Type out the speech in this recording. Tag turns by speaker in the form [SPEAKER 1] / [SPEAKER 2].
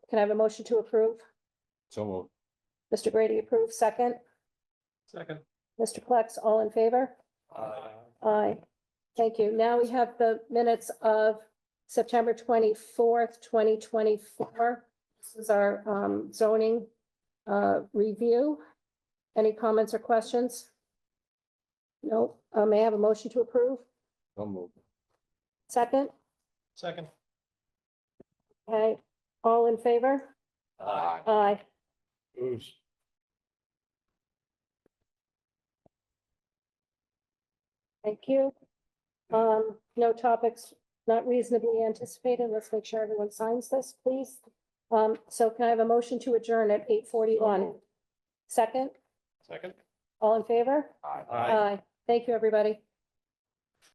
[SPEAKER 1] Can I have a motion to approve?
[SPEAKER 2] So moved.
[SPEAKER 1] Mr. Grady approves, second.
[SPEAKER 3] Second.
[SPEAKER 1] Mr. Flex, all in favor? Aye. Thank you. Now we have the minutes of September twenty-fourth, twenty twenty-four. This is our um, zoning uh, review. Any comments or questions? No. Uh, May I have a motion to approve?
[SPEAKER 2] So moved.
[SPEAKER 1] Second?
[SPEAKER 3] Second.
[SPEAKER 1] Okay. All in favor?
[SPEAKER 2] Aye.
[SPEAKER 1] Aye.
[SPEAKER 2] Who's?
[SPEAKER 1] Thank you. Um, no topics not reasonably anticipated. Let's make sure everyone signs this, please. Um, so can I have a motion to adjourn at eight forty-one? Second,
[SPEAKER 3] Second.
[SPEAKER 1] all in favor?
[SPEAKER 2] Aye.
[SPEAKER 3] Aye.
[SPEAKER 1] Thank you, everybody.